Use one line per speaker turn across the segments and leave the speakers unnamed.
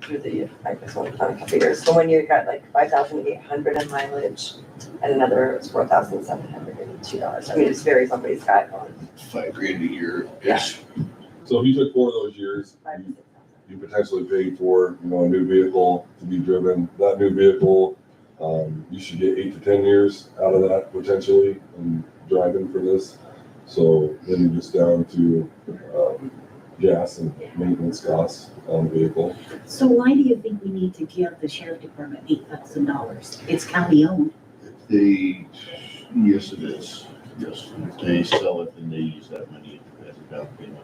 through the, I just want to count a couple years, so one year you got like five thousand eight hundred in mileage, and another was four thousand seven hundred and two dollars, I mean, it just varies on what he's got on
five grand a year-ish.
So if you took four of those years,
five to
you-
six thousand.
you potentially paid for, you know, a new vehicle to be driven. That new vehicle, um, you should get eight to ten years out of that potentially, um, driving for this. So then you're just down to, um, gas and maintenance costs on the vehicle.
So why do you think we need to give the sheriff department eight thousand dollars? It's county owned.
They, yes, it is. Yes. They sell it and they use that money as a down payment.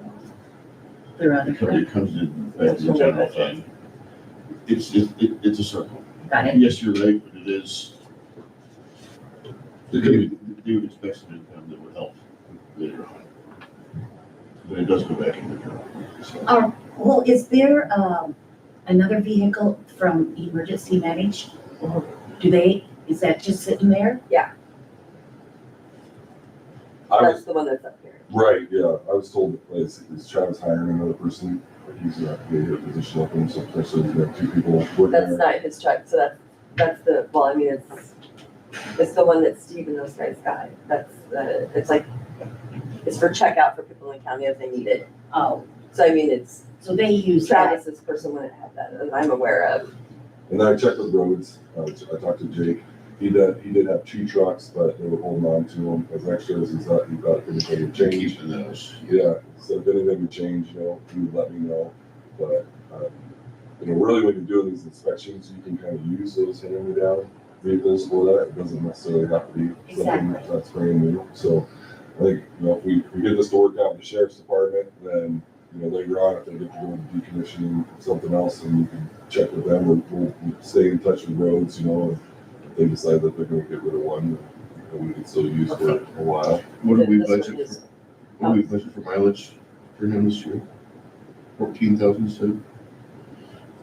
There are other
So
firms.
it comes in, back to the general fund. It's, it, it- it's a circle.
Got it?
Yes, you're right, but it is,
It
they
could be,
would they would expect some income that would help later on. But it does go back into the general. fund, so.
Oh, well, is there, um, another vehicle from emergency manage? Or do they, is that just sitting there?
I was,
That's the one that's up here.
right, yeah, I was told, like, is is Travis hiring another person? He's gonna have to get a position open, so potentially you have two people working
That's
there.
not his truck, so that's, that's the, well, I mean, it's, it's the one that Steve and those guys got, that's, uh, it's like, it's for checkout for people in county if they need it.
Oh,
So I mean, it's
so they use that.
Travis's person wouldn't have that, that I'm aware of.
And then I checked with Rhodes, I, I talked to Jake, he did, he did have two trucks, but they were holding on to them as extras, he's not, he thought if anything would change.
Keeping those.
Yeah, so if anything would change, you know, he would let me know, but, um, you know, really when you're doing these inspections, you can kind of use those hand-me-down vehicles for that, it doesn't necessarily have to be something
Exactly.
that's brand new, so. I think, you know, if we, we get this to work out with the sheriff's department, then, you know, later on, if they get to go into decommissioning something else, and you can check with them, or we'll we'll stay in touch with roads, you know, and if they decide that they're gonna get rid of one, you know, we can still use for a while.
What do we
This one
budget for?
is-
What do we budget for mileage for him this year? Fourteen thousand, so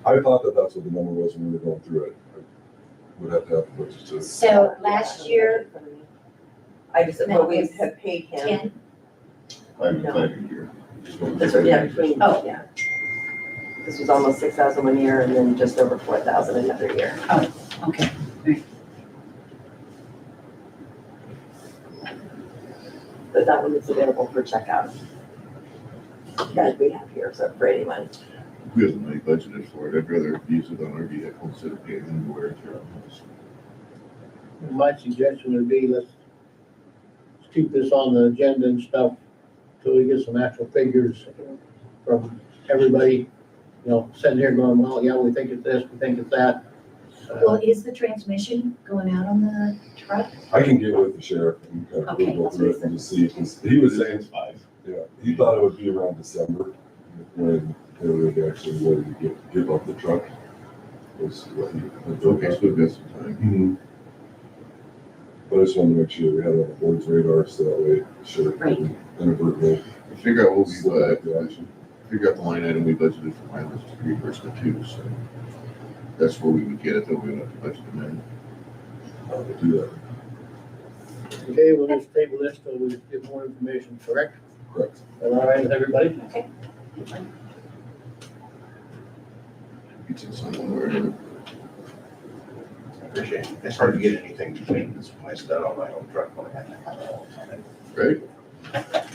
I thought that that's what the number was when we were going through it. I Would have to have the budget to,
Yeah,
So
I
last
don't
year,
have it in front of me. I just,
That
but we
was
have paid him,
ten,
five and
No.
five a year.
this was, yeah, between,
Oh.
yeah. This was almost six thousand one year and then just over four thousand another year.
Oh,
Okay.
But that one is available for checkout. That we have here, so for anyone.
Who doesn't make budgeted for it? I'd rather use it on our vehicle instead of paying them to wear it around us.
My suggestion would be let's let's keep this on the agenda and stuff till we get some actual figures from everybody. You know, sitting here going, well, yeah, we think it's this, we think it's that. Uh,
Well, is the transmission going out on the truck?
I can get with the sheriff and kind of
Okay,
go
that's
through it and just see, 'cause he was saying,
five.
yeah, he thought it would be around December when they would actually ready to get, give up the truck. Was what he had told
Okay,
us.
so we've got some time.
Mhm. But I just wanted to make sure we had it on the board's radar, so that way the sheriff
Right.
didn't inadvertently
Figure out what we,
slip
uh,
back to action.
figure out the line item we budgeted for mileage reimbursement too, so that's where we would get it, though we would have to budget amendment.
I'll uh, do that,
Okay, we'll just table this till we get more information, correct?
correct.
Am I right with everybody?
It's in some one way or another.
Appreciate it. It's hard to get anything between this place that all my own truck when I had that.
Right?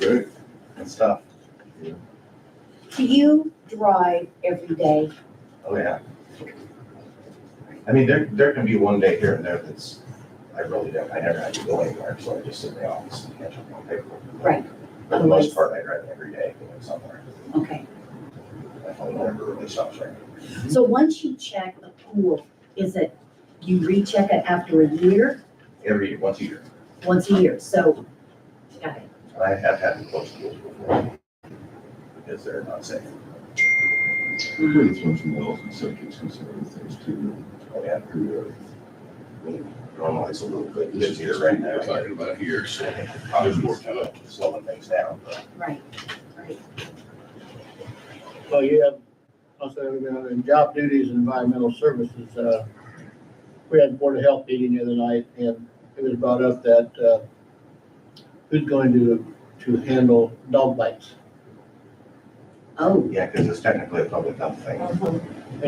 Right?
It's tough.
Do you drive every day?
Oh, yeah. I mean, there, there can be one day here and there that's, I really don't, I never have to go anywhere, so I just sit in the office and catch up on paperwork.
Right.
For the most part, I drive every day going somewhere.
Okay.
My phone never really stops ringing.
So once you check the pool, is it, you recheck it after a year,
Every, once a year.
once a year? So, got it.
And I have had to close schools before because they're not safe.
We're gonna throw some wells and subjects and some other things too.
Oh, yeah.
We're, uh,
Normally it's a little bit
This is
busier
just what
right now.
we're talking about here, so.
There's more to it, slowing things down, but
right, right.
Well, you have, also, uh, in job duties and environmental services, uh, we had Board of Health meeting the other night, and it was brought up that, uh, who's going to, to handle dog bites?
Oh.
yeah, because it's technically a public health thing.